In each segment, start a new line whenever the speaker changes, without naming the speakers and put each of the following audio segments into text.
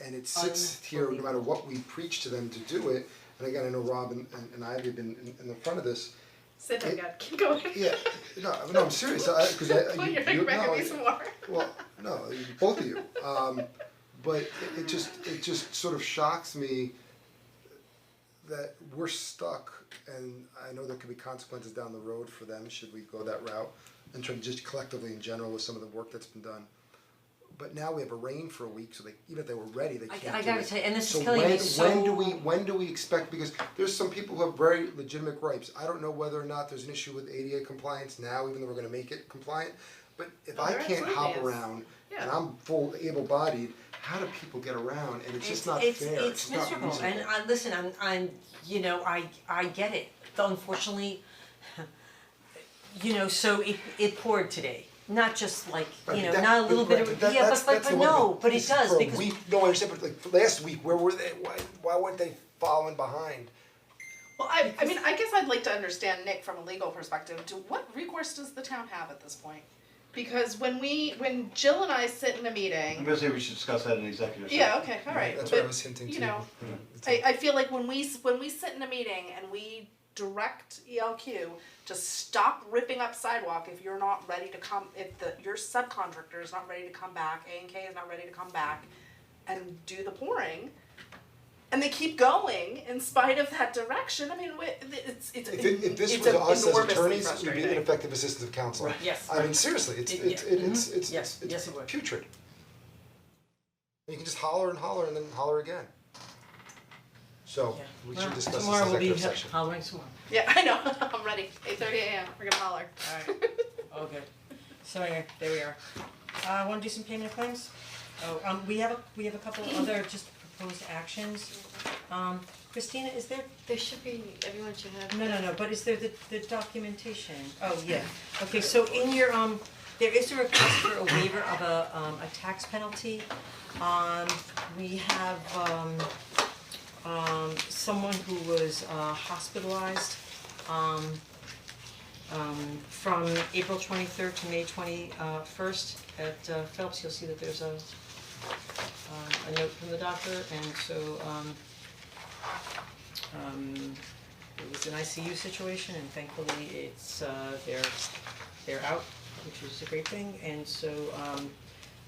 and it's sixth here, no matter what we preach to them to do it, and again, I know Rob and and and Ivy have been in in the front of this,
Sit down, God, keep going.
yeah, no, no, I'm serious, I, cause I,
Put
you, you,
your finger back
no,
at me some more.
well, no, both of you, um, but it, it just, it just sort of shocks me that we're stuck, and I know there could be consequences down the road for them, should we go that route, in terms, just collectively in general with some of the work that's been done. But now we have a rain for a week, so they, even if they were ready, they
I-
can't
I
do
gotta
it.
tell you, and this is killing me
So when, when do
so-
we, when do we expect, because there's some people who have very legitimate gripes, I don't know whether or not there's an issue with ADA compliance now, even though we're gonna make it compliant, but if
Oh,
I
there
can't
absolutely
hop
is.
around, and
Yeah.
I'm full able-bodied, how do people get around, and it's just not fair,
it's
it's
it's
not
miserable,
reasonable.
and I, listen, I'm I'm, you know, I I get it, unfortunately, you know, so it it poured today, not just like,
Right,
you know,
but that-
not a little
but-
bit of,
right, but that-
yeah, but
that's-
but
that's
but
the one
no,
thing.
but it
This is
does,
for a
because
week. no, I understand, but like last week, where were they, why, why weren't they following behind?
Well, I, I mean, I guess I'd like to understand Nick from a legal perspective, to what recourse does the town have at this point? Because when we, when Jill and I sit in a
I'm
meeting,
gonna say we should discuss that in executive session.
yeah, okay, alright,
That's what I
but,
was hinting to.
you know, I, I feel like when we, s- when we sit in a meeting and we direct ELQ to stop ripping up sidewalk if you're not ready to come, if the, your subcontractor is not ready to come back, A and K is not ready to come back and do the pouring, and they keep going in spite of that direction, I mean, wi- it's, it's,
If it, if this
it's
was us as
enormously
attorneys, it would be
frustrating.
ineffective assistance of counsel.
Right. Yes.
I mean, seriously, it's,
It-
it's,
yeah. Mm-hmm.
it- it's, it's,
Yes,
it's,
yes,
it's
it would.
putrid. You can just holler and holler and then holler again. So,
Yeah.
we
Well,
should discuss this
tomorrow we'll be
executive session.
hollering some more.
Yeah, I know, I'm ready, eight thirty AM, we're gonna holler.
Oh, good. So anyway, there we are. Uh, wanna do some payment of claims? Oh, um, we have a, we have a couple other just proposed actions. Um, Christina, is there,
There should be, everyone should have.
no, no, no, but is there the, the documentation? Oh, yeah, okay, so in your, um, there is a request for a waiver of a, um, a tax penalty. Um, we have, um, um, someone who was, uh, hospitalized, um, um, from April twenty-third to May twenty, uh, first at uh, Phelps, you'll see that there's a, um, a note from the doctor, and so, um, um, it was an ICU situation, and thankfully, it's, uh, they're, they're out, which is a great thing, and so, um,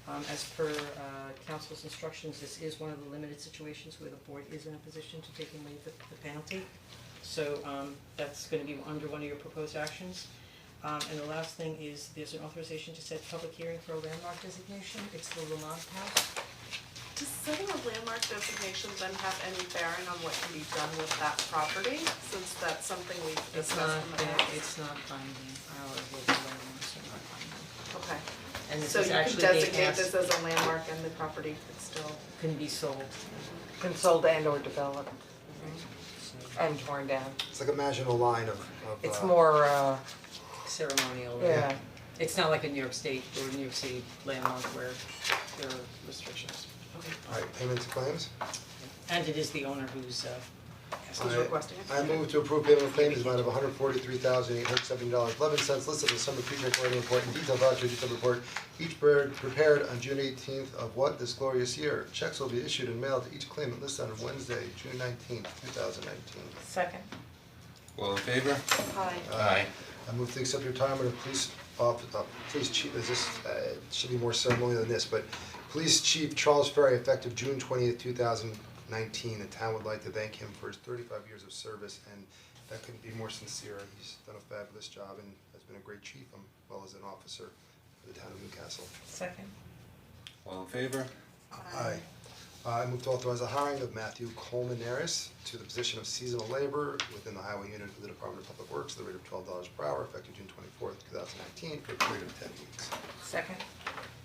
um, as per, uh, council's instructions, this is one of the limited situations where the board is in a position to take away the, the penalty. So um that's gonna be under one of your proposed actions. Um and the last thing is there's an authorization to set public hearing for a landmark designation, it's the Lamont House.
Does setting a landmark designation then have any bearing on what can be done with that property, since that's something we've
It's
discussed
not,
in the past?
it's not binding, our local landmarks are not binding.
Okay,
And this
so
is
you can
actually they asked,
designate this as a landmark and the property could still,
can be sold,
Consoled and or developed and torn down.
It's like imagine a line of, of,
It's
uh,
more, uh,
ceremonial.
yeah,
It's not like a New York State or New York City landmark where there are restrictions.
Alright, payments and claims?
And it is the owner who's uh asked.
Who's
I-
requesting it?
I move to approve payment of claims in amount of hundred forty-three thousand eight hundred seventy dollars, eleven cents listed in the summary pre recording report and detailed voucher detailed report. Each bird prepared on June eighteenth of what this glorious year. Checks will be issued and mailed to each claimant listed on Wednesday, June nineteenth, two thousand nineteen.
second.
All in favor?
hi.
Aye.
I move to accept retirement of police off, uh, police chief, is this, uh, it should be more ceremonial than this, but Police Chief Charles Ferry, effective June twentieth, two thousand nineteen, the town would like to thank him for his thirty-five years of service, and that couldn't be more sincere, he's done a fabulous job and has been a great chief, um, well as an officer for the town of Newcastle.
Second.
All in favor?
Aye. Uh, I move to authorize the hiring of Matthew Coleman Harris to the position of seasonal labor within the highway unit of the Department of Public Works at the rate of twelve dollars per hour effective June twenty-fourth, two thousand nineteen, for a period of ten weeks.
Second.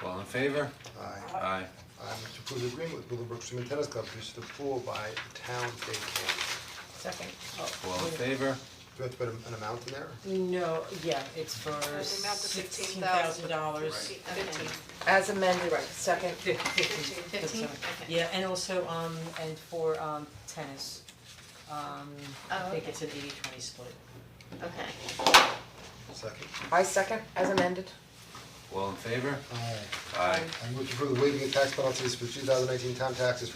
All in favor?
Aye.
Aye.
I move to approve the agreement with Willowbrook Swim and Tennis Club to use the pool by the town day camp.
Second.
All in favor?
Do we have to put a- an amount in there?
No, yeah, it's for
It's the amount of
sixteen thousand dollars.
$16,000. Fifteen.
As amended, right, second.
Fifteen? Okay.
Yeah, and also, um, and for, um, tennis, um, I
Oh,
think
okay.
it's an eighty-twenty split.
Okay.
Second.
I second, as amended.
All in favor?
Aye.
Aye.
I move to approve the waiving of tax penalties for two thousand nineteen town taxes